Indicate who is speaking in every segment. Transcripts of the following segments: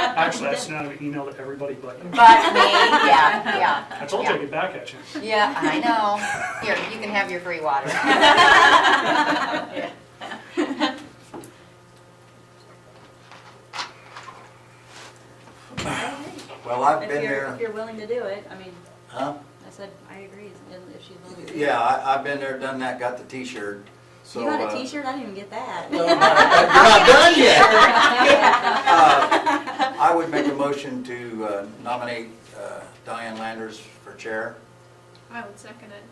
Speaker 1: Actually, I sent out an email to everybody but you.
Speaker 2: But me, yeah, yeah,
Speaker 1: I told you I'd get back at you.
Speaker 2: yeah, I know. Here, you can have your free water.
Speaker 3: Well, I've
Speaker 4: If
Speaker 3: been
Speaker 4: you're,
Speaker 3: there,
Speaker 4: if you're willing to do it, I mean,
Speaker 3: huh?
Speaker 4: I said, I agree, and if she's willing to do it.
Speaker 3: Yeah, I, I've been there, done that, got the T-shirt, so.
Speaker 4: You got
Speaker 3: uh,
Speaker 4: a t-shirt? I didn't even get that.
Speaker 3: You're not done yet. Uh, I would make a motion to uh, nominate uh, Diane Landers for chair.
Speaker 5: I would second it.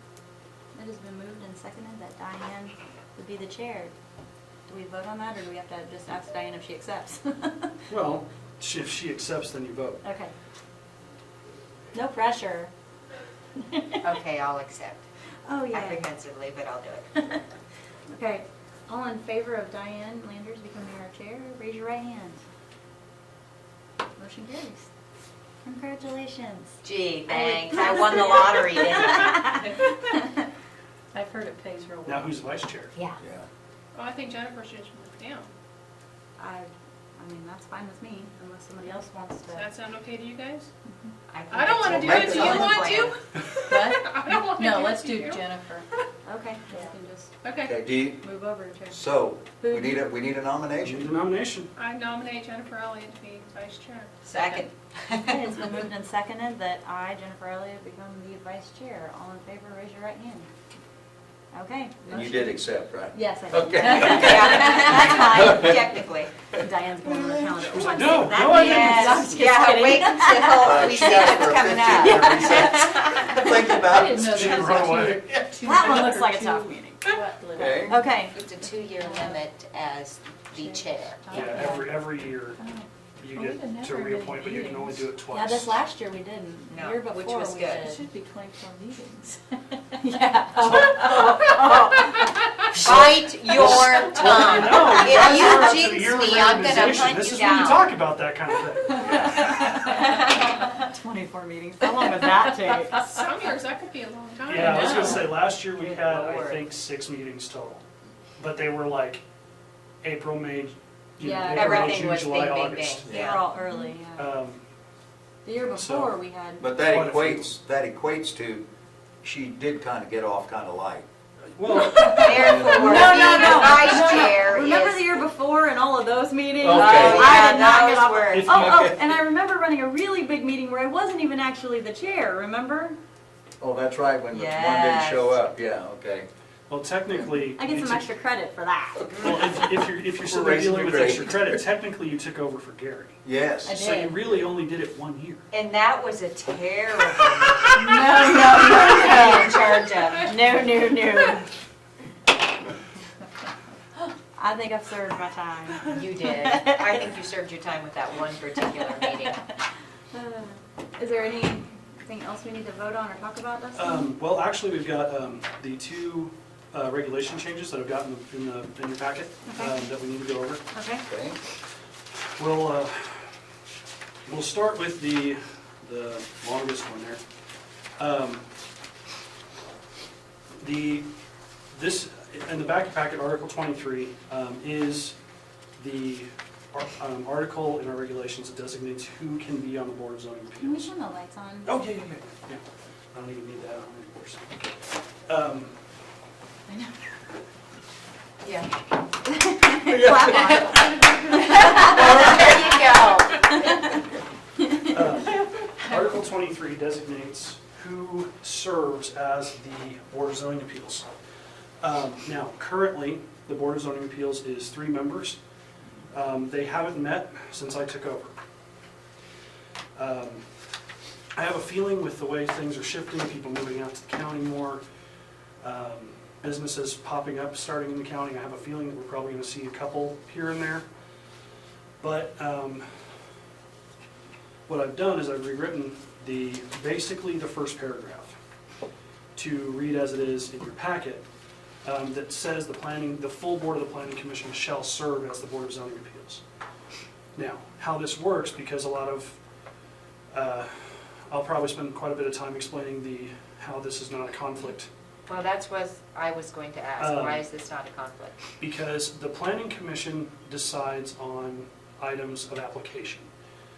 Speaker 4: It has been moved and seconded that Diane would be the chair. Do we vote on that, or do we have to just ask Diane if she accepts?
Speaker 1: Well, she- if she accepts, then you vote.
Speaker 4: Okay. No pressure.
Speaker 2: Okay, I'll accept
Speaker 4: Oh, yeah.
Speaker 2: apprehensively, but I'll do it.
Speaker 4: Okay, all in favor of Diane Landers becoming our chair, raise your right hand. Motion carries. Congratulations.
Speaker 2: Gee, thanks, I won the lottery, didn't I?
Speaker 4: I've heard it pays real
Speaker 1: Now
Speaker 4: well.
Speaker 1: who's vice chair?
Speaker 2: Yeah.
Speaker 3: Yeah.
Speaker 5: Well, I think Jennifer should move down.
Speaker 4: I, I mean, that's fine with me, unless somebody else wants
Speaker 5: Does
Speaker 4: to.
Speaker 5: that sound okay to you guys?
Speaker 2: think
Speaker 5: I don't wanna
Speaker 2: it's
Speaker 5: do
Speaker 3: Well,
Speaker 5: it, do you
Speaker 2: all in
Speaker 5: want
Speaker 2: plan.
Speaker 5: to? I don't wanna do it.
Speaker 6: No, let's do
Speaker 5: you?
Speaker 6: Jennifer.
Speaker 4: Okay, we can just
Speaker 5: Okay,
Speaker 3: Okay, do you,
Speaker 4: move over to chair.
Speaker 3: so, we need a, we need a
Speaker 1: Need a
Speaker 3: nomination.
Speaker 1: nomination.
Speaker 5: I nominate Jennifer Elliott to be vice chair.
Speaker 2: Second.
Speaker 4: Okay, It's been moved and seconded that I, Jennifer Elliott, become the vice chair. All in favor, raise your right hand. Okay.
Speaker 3: And you
Speaker 4: motion-
Speaker 3: did accept, right?
Speaker 4: Yes, I did.
Speaker 3: Okay.
Speaker 2: Yeah, that's fine, technically.
Speaker 4: Diane's going on the calendar.
Speaker 1: She was like,
Speaker 4: What's
Speaker 1: no,
Speaker 4: that
Speaker 1: no, I
Speaker 4: mean? I'm
Speaker 2: Yes,
Speaker 4: just
Speaker 2: yeah,
Speaker 4: kidding.
Speaker 2: wait until
Speaker 3: Uh,
Speaker 2: we
Speaker 3: she
Speaker 2: see
Speaker 3: asked for
Speaker 2: what's
Speaker 3: a
Speaker 2: coming up.
Speaker 3: 15-year recess. Think
Speaker 6: I
Speaker 3: about
Speaker 6: didn't
Speaker 3: it.
Speaker 6: know
Speaker 1: She
Speaker 6: there was
Speaker 1: run
Speaker 6: a two-
Speaker 1: away.
Speaker 6: two-
Speaker 4: That one looks like a
Speaker 6: two-
Speaker 4: tough meeting.
Speaker 6: what little-
Speaker 3: Okay.
Speaker 4: Okay,
Speaker 2: It's a two-year limit as the chair.
Speaker 1: Yeah, every, every year you
Speaker 6: Well, we didn't
Speaker 1: get
Speaker 6: have
Speaker 1: to
Speaker 6: very many
Speaker 1: reappoint, but you can only do it twice.
Speaker 4: yeah, this last year we didn't. The
Speaker 2: No,
Speaker 4: year
Speaker 2: which
Speaker 4: before
Speaker 2: was
Speaker 4: we
Speaker 2: good.
Speaker 6: It
Speaker 4: did.
Speaker 6: should be twenty-four meetings.
Speaker 4: Yeah. Oh, oh,
Speaker 2: Bite your tongue.
Speaker 1: Oh, No, you guys are up
Speaker 2: If
Speaker 1: to
Speaker 2: you
Speaker 1: the year of
Speaker 2: jinx me, I'm gonna
Speaker 1: reorganization.
Speaker 2: hunt
Speaker 1: This
Speaker 2: you
Speaker 1: is when you
Speaker 2: down.
Speaker 1: talk about that kind of thing.
Speaker 4: oh. Twenty-four meetings. How long would that take?
Speaker 5: Some years, that could be a long time.
Speaker 1: Yeah, I was gonna
Speaker 4: know.
Speaker 1: say, last year we
Speaker 2: Good
Speaker 1: had, I
Speaker 2: lord.
Speaker 1: think, six meetings total. But they were like April, May, you know,
Speaker 4: Yeah,
Speaker 1: April,
Speaker 2: Everything
Speaker 1: June,
Speaker 2: was
Speaker 1: July,
Speaker 2: bing, bing, bing,
Speaker 1: August.
Speaker 3: Yeah.
Speaker 4: They're all early, yeah.
Speaker 1: Um,
Speaker 4: The year
Speaker 1: so-
Speaker 4: before we had,
Speaker 3: But that
Speaker 1: Quite a few.
Speaker 3: equates, that equates to, she did kind of get off kind of light.
Speaker 1: Well,
Speaker 2: Therefore,
Speaker 4: No, no,
Speaker 2: being
Speaker 4: no,
Speaker 2: the vice
Speaker 4: no, no.
Speaker 2: chair
Speaker 4: remember the
Speaker 2: is.
Speaker 4: year before and all of those meetings?
Speaker 3: Okay.
Speaker 2: Oh,
Speaker 4: I
Speaker 2: yeah,
Speaker 4: did not
Speaker 2: that
Speaker 4: get
Speaker 2: was
Speaker 4: off.
Speaker 2: worse.
Speaker 4: Oh, oh, and I remember running a really big meeting where I wasn't even actually the chair, remember?
Speaker 3: Oh, that's right, when the one didn't
Speaker 2: Yes.
Speaker 3: show up, yeah, okay.
Speaker 1: well, technically.
Speaker 4: I
Speaker 1: you
Speaker 4: get some
Speaker 1: took-
Speaker 4: extra credit for that.
Speaker 1: Well, if, if you're, if you're still
Speaker 3: raising
Speaker 1: dealing
Speaker 3: the
Speaker 1: with
Speaker 3: grade.
Speaker 1: extra credit, technically you took over for Gary.
Speaker 3: Yes.
Speaker 4: I
Speaker 1: So you
Speaker 4: did.
Speaker 1: really only did it one year.
Speaker 2: And that was a terrible. No, no, no. In charge of.
Speaker 4: No, no, no. I think I've served my time.
Speaker 2: You did. I think you served your time with that one particular meeting.
Speaker 4: Uh, Is there anything else we need to vote on or talk about, Dustin?
Speaker 1: Um, well, actually, we've got, um, the two, uh, regulation changes that I've gotten in the, in your packet,
Speaker 4: Okay.
Speaker 1: um, that we need to go over.
Speaker 4: Okay,
Speaker 3: Okay.
Speaker 1: We'll, uh, we'll start with the, the longest one there. Um, The, this, in the back packet, Article 23, um, is the ar- um, article in our regulations that designates who can be on the Board of Zoning
Speaker 4: can we
Speaker 1: Appeals.
Speaker 4: turn the lights on?
Speaker 1: Oh, yeah, yeah, yeah, yeah. I don't even need that on anymore, so. Um,
Speaker 2: Yeah.
Speaker 4: Clap on.
Speaker 2: There you go.
Speaker 1: Uh, Article 23 designates who serves as the Board of Zoning Appeals. Um, Now, currently, the Board of Zoning Appeals is three members. Um, They haven't met since I took over. Um, I have a feeling with the way things are shifting, people moving out to the county more, um, businesses popping up, starting in the county, I have a feeling that we're probably going to see a couple here and there. But um, what I've done is I've rewritten the, basically the first paragraph to read as it is in your packet, um, that says the planning, the full board of the planning commission shall serve as the board of zoning appeals. Now, how this works, because a lot of, uh, I'll probably spend quite a bit of time explaining the, how this is not a conflict
Speaker 2: Well, that's what I was going to ask.
Speaker 1: Um,
Speaker 2: Why is this not a conflict?
Speaker 1: because the planning commission decides on items of application.